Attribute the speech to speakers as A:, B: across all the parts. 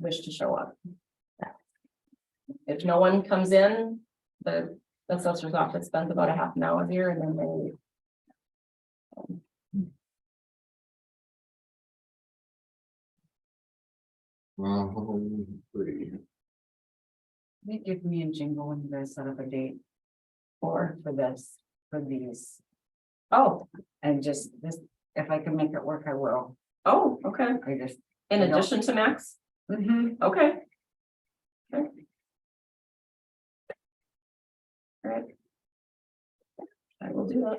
A: wish to show up. If no one comes in, the the assessor's office spends about a half an hour here and then they leave.
B: Um, three.
C: They give me and Jingle when you guys set up a date
A: Or,
C: for this, for these,
A: oh,
C: and just this, if I can make it work, I will,
A: oh, okay,
C: I just. mm-hmm.
A: in
C: I don't-
A: addition to Max, okay. Okay. All right. I will do that.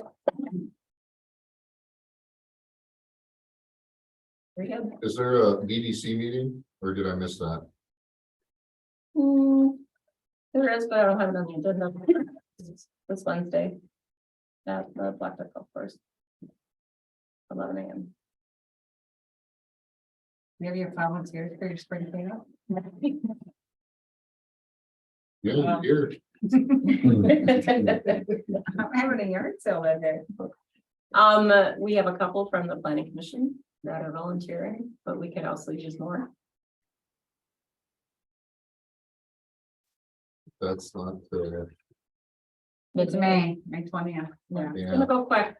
A: Very good.
B: Is there a BDC meeting or did I miss that?
A: Hmm, there is, but I don't have it on the agenda. This Wednesday. At the Black Duck Golf Course. Eleven AM.
C: Maybe your volunteers for your spring cleanup.
B: Yeah,
C: Um,
B: here.
C: I'm having a yard sale that day.
A: Um, we have a couple from the planning commission that are volunteering, but we could also use more.
B: That's not, uh,
C: It's May, May twentieth, yeah.
A: It's
B: yeah,
A: gonna go quick.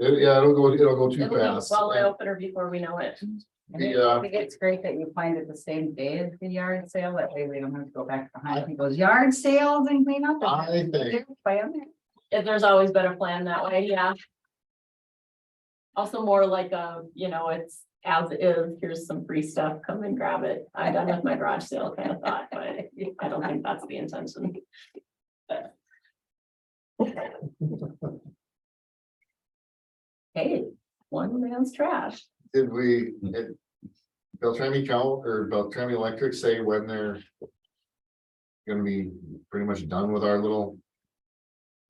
B: It- yeah, it'll go, it'll go too
A: It'll go
B: fast.
A: well opener before we know it.
C: And it-
B: Yeah.
C: I think it's great that you find it the same day as the yard sale, that way we don't have to go back behind people's yard sales and clean up.
B: I think-
A: If there's always been a plan that way, yeah. Also more like a, you know, it's as is, here's some free stuff, come and grab it. I'm done with my garage sale kind of thought, but I don't think that's the intention. Hey, one man's trash.
B: Did we, did Beltrami Cal or Beltrami Electric say when they're gonna be pretty much done with our little,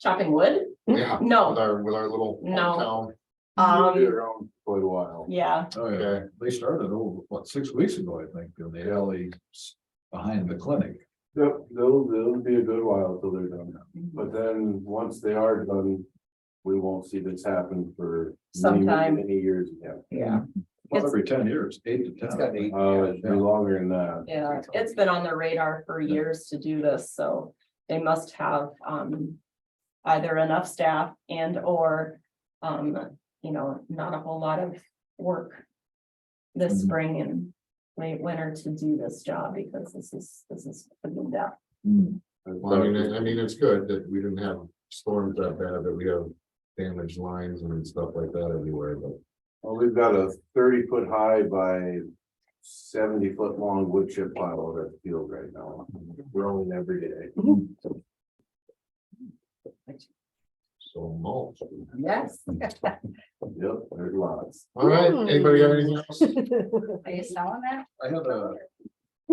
A: Chopping wood?
B: yeah, with
A: No,
B: our, with our little
A: No.
B: hometown?
A: um,
D: around quite a while.
A: yeah,
D: Oh, yeah, they started over, what, six weeks ago, I think, in the alley s- behind the clinic.
E: Yep, they'll, they'll be a good while till they're done, but then, once they are done, we won't see this happen for. many,
A: Sometime.
E: Many years, yeah,
A: yeah,
D: Well,
A: It's-
D: every ten years, eight to ten.
C: It's got eight.
E: uh, it's been longer than that,
A: yeah. It's been on their radar for years to do this, so they must have, um, either enough staff and or, um, you know, not a whole lot of work this
D: Mhm.
A: spring and late winter to do this job because this is, this is pretty depth.
D: Hmm.
B: Well, I mean, I- I mean, it's good that we didn't have storms that bad, that we have damaged lines and stuff like that everywhere, but.
E: well, we've got a thirty foot high by. Seventy foot long wood chip pile over the field right now, growing every day.
B: So mulch.
C: Yes.
E: Yep, there's lots.
B: All right,
A: Hmm.
B: anybody got anything else?
C: Are you selling that?
D: I had a,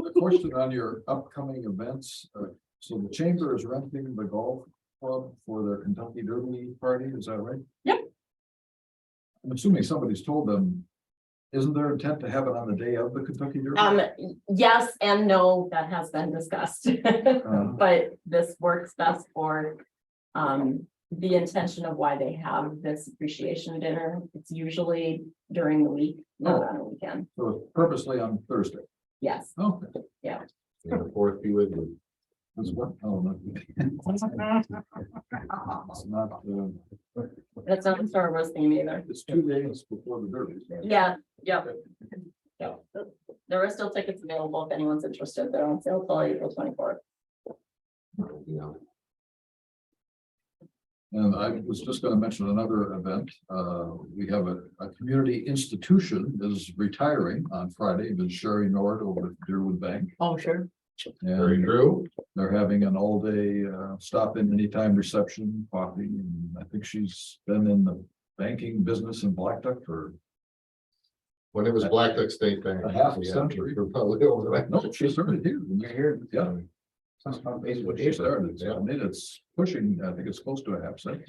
D: a question on your upcoming events. Uh, So the chamber is renting the golf club for their Kentucky Derby party, is that right?
A: Yep.
D: I'm assuming somebody's told them, isn't their intent to have it on the day of the Kentucky Derby?
A: Um, yes and no, that has been discussed.
D: Uh,
A: But this works best for um the intention of why they have this appreciation dinner. It's usually during the week, not on a weekend.
D: So it's purposely on Thursday.
A: Yes,
D: Okay.
B: May the Fourth be with you.
D: That's what, oh, no. It's not, uh,
A: that's not a Star Wars theme either.
D: it's two days before the derby. right?
A: Yeah, yep. Yep. There are still tickets available if anyone's interested. They're on sale till April twenty-fourth.
B: Yeah.
D: And I was just gonna mention another event. Uh, we have a, a community institution is retiring on Friday, Ms. Sherry Nord over at Deerwood Bank.
C: Oh, sure.
B: Very
D: And
B: true.
D: they're having an all-day, uh, stop-in anytime reception, coffee, and I think she's been in the banking business in Black Duck for,
B: When it was Black Duck State Bank.
D: A half
B: Yeah,
D: century.
B: you're Probably over that.
D: no, she started here. when we were here, Yeah. What she started, so I mean, it's pushing, I think it's close to a half cent.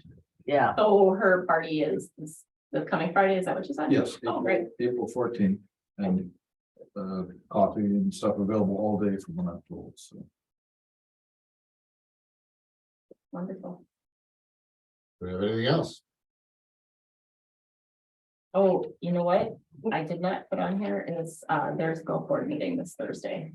C: Yeah.
A: So Oh, her party is is the coming Friday, is that what you said?
D: Yes.
A: Oh, great.
D: April fourteenth, and uh, coffee and stuff available all day from when I'm told, so.
A: Wonderful.
B: Do we have anything else?
A: Oh, you know what? I did not put on here is, uh, there's go board meeting this Thursday.